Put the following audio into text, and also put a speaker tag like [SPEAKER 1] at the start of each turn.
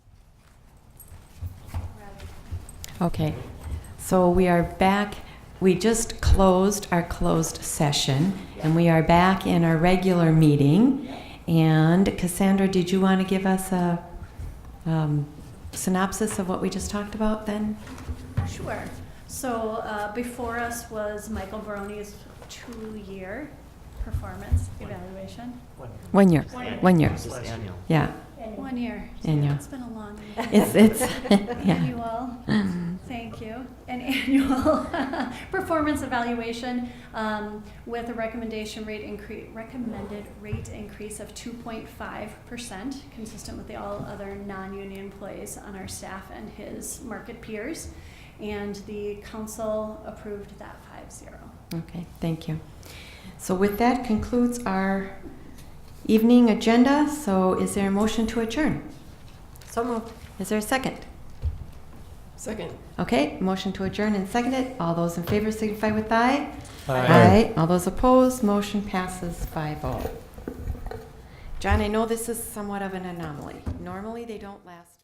[SPEAKER 1] Okay, so we are back, we just closed our closed session, and we are back in our regular meeting. And Cassandra, did you want to give us a um, synopsis of what we just talked about then?
[SPEAKER 2] Sure. So uh, before us was Michael Baroni's two-year performance evaluation.
[SPEAKER 1] One year,
[SPEAKER 2] One year.
[SPEAKER 1] one year,
[SPEAKER 3] Just annual.
[SPEAKER 1] yeah.
[SPEAKER 2] One year.
[SPEAKER 1] And uh, you.
[SPEAKER 2] It's been a long year.
[SPEAKER 1] It's, it's, yeah.
[SPEAKER 2] Annual, thank you, an annual performance evaluation um, with a recommendation rate increase, recommended rate increase of two point five percent, consistent with the all other non-union employees on our staff and his market peers. And the council approved that five zero.
[SPEAKER 1] Okay, thank you. So with that concludes our evening agenda, so is there a motion to adjourn? So moved. Is there a second?
[SPEAKER 4] Second.
[SPEAKER 1] Okay, motion to adjourn and seconded. All those in favor signify with aye.
[SPEAKER 3] Aye.
[SPEAKER 1] All those opposed, motion passes oh. 5-0. John, I know this is somewhat of an anomaly. Normally, they don't last.